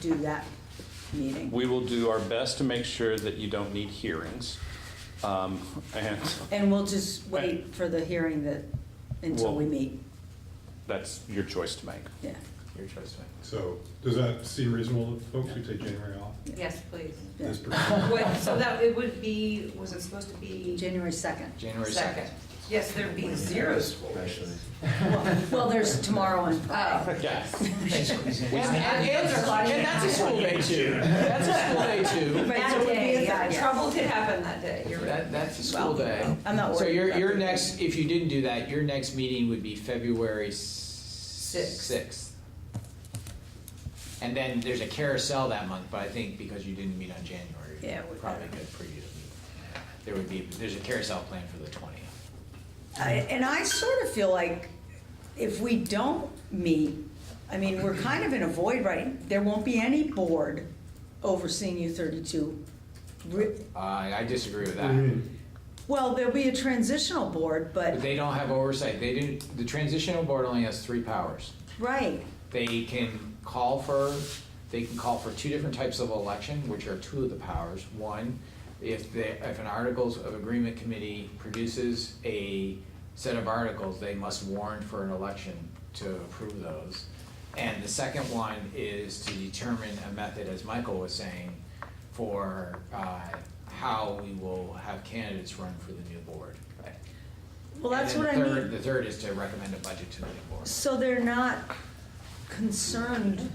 do that meeting. We will do our best to make sure that you don't need hearings. Um, And And we'll just wait for the hearing that, until we Well- meet, that's your choice to make. yeah. Your choice, man. So, does that seem reasonable to folks who take January off? Yes, please. yeah. This particular- Wait, so that, it would be, was it supposed to be January 2nd. January second? second. Yes, there'd be zero school days. Well, there's tomorrow and Friday. Oh, Yeah. And that's a school day too. That's a school day too. Right, so it that would be the third, day, yeah. yeah, trouble could happen that day, you're right. That, that's a school day. I'm not worried. So your, about your that. next, if you didn't do that, your next meeting would be February sixth. And then there's a carousel that month, but I think because you didn't meet on January, Yeah, we- probably good for you to meet. There would be, there's a carousel planned for the twentieth. I- And I sort of feel like if we don't meet, I mean, we're kind of in a void, right? There won't be any board overseeing U thirty-two. Re- Uh, I disagree with What that. do you mean? Well, there'll be a transitional board, But but, they don't have oversight. They didn't, the transitional board only has three powers. right, They can call for, they can call for two different types of election, which are two of the powers. One, if the, if an Articles of Agreement Committee produces a set of articles, they must warn for an election to approve those. And the second one is to determine a method, as Michael was saying, for, uh, how we will have candidates run for the new board. well, that's what I And then the third- mean. The third is to recommend a budget to the new board. So they're not concerned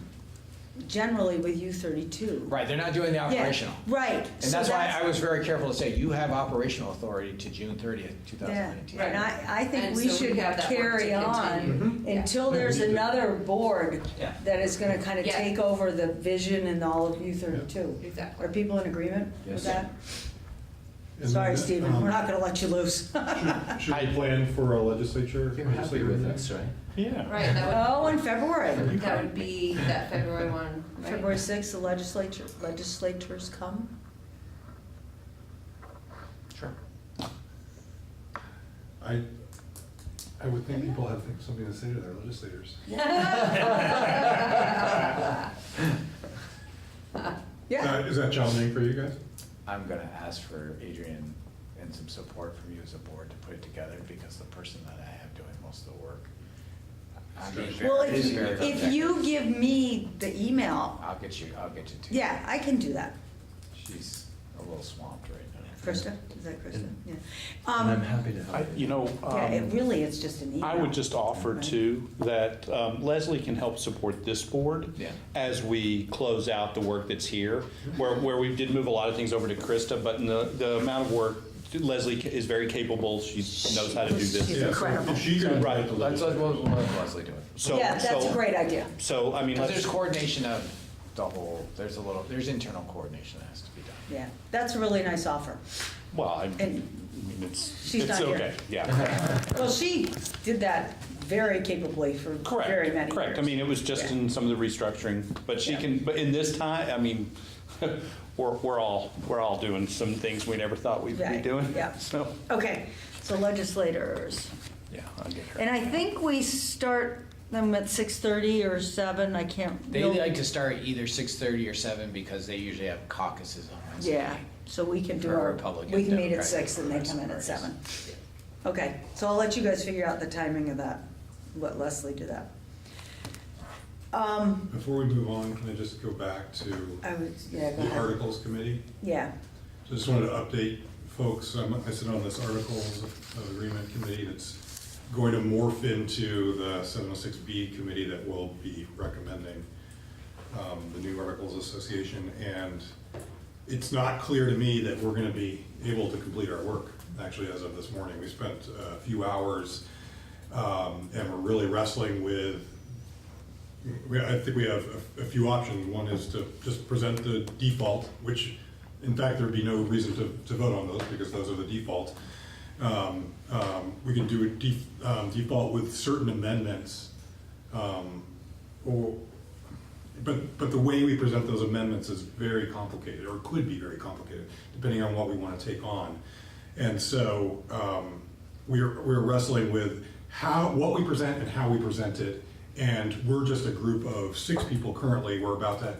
generally with U thirty-two. Right, they're not doing the operational. Yeah, right. And that's why I was very careful to say, you have operational authority to June thirtieth, two Yeah, thousand nineteen. and I, I think And we so we should have that work to carry Mm-hmm. on continue. until there's another board Yeah. that is gonna kind of Yeah. take over the vision and all of U thirty-two. Are Exactly. people in agreement with Yes. that? And Sorry, then, Stephen, um, we're not gonna let you loose. Should we plan for a legislature? legislative meeting? right? Yeah. Right, that Oh, in February, would, that would be that February one, right? February sixth, the legislature, legislators come. Sure. I, I would think people have something to say to their legislators. Yeah, Uh, Is that challenging for you guys? I'm gonna ask for Adrian and some support from you as a board to put it together, because the person that I have doing most of the work. I'm being very- well, if is you, very if you protective. give me the email, I'll get you, I'll get you two. yeah, I can do that. She's a little swamped right now. Krista, is that Krista? Yeah. And I'm Um, happy to I- help. You know, Yeah, um, it really is just an email. I would just offer too, that um, Leslie can help support this board Yeah. as we close out the work that's here, where, where we did move a lot of things over to Krista, but in the, the amount of work, Leslie is very capable, she knows how to do She's this. Yeah, so incredible. If she could invite the Let's, let legislature. Leslie do it. So- Yeah, that's a so- great idea. So, I mean, Because there's let's, coordination of the whole, there's a little, there's internal coordination that has to be done. Yeah, that's a really nice offer. well, I And- mean, it's, She's it's not here. okay, yeah. Well, she did that very capably for very many Correct, years. correct. I mean, it was just Yeah. in some of the restructuring, but she Yeah. can, but in this time, I mean, we're, we're all, we're all doing some things we never thought we'd be Right, doing, yeah. so, Okay, so legislators. yeah, I'll get her. And I think we start them at 6:30 or 7, I can't. They you'll- like to start either six thirty or seven because they usually have caucuses on Wednesday. Yeah, so we can do For our, Republican, we can meet at Democratic, 6 and they come in at 7. Okay, so I'll let you guys figure out the timing of that, let Leslie do that. Um, Before we move on, can I just go back to I would, yeah, go the ahead. Articles Committee? Yeah, So Just wanted to update folks, I'm- I sit on this Articles of Agreement Committee that's going to morph into the 706B Committee that will be recommending um, the new Articles Association. And it's not clear to me that we're going to be able to complete our work, actually, as of this morning. We spent a few hours um, and we're really wrestling with, we- I think we have a a few options. One is to just present the default, which, in fact, there'd be no reason to, to vote on those, because those are the default. Um, um, We can do a def- um, default with certain amendments, um, or, but, but the way we present those amendments is very complicated, or could be very complicated, depending on what we want to take on. And so um, we're, we're wrestling with how, what we present and how we present it. And we're just a group of six people currently. We're about to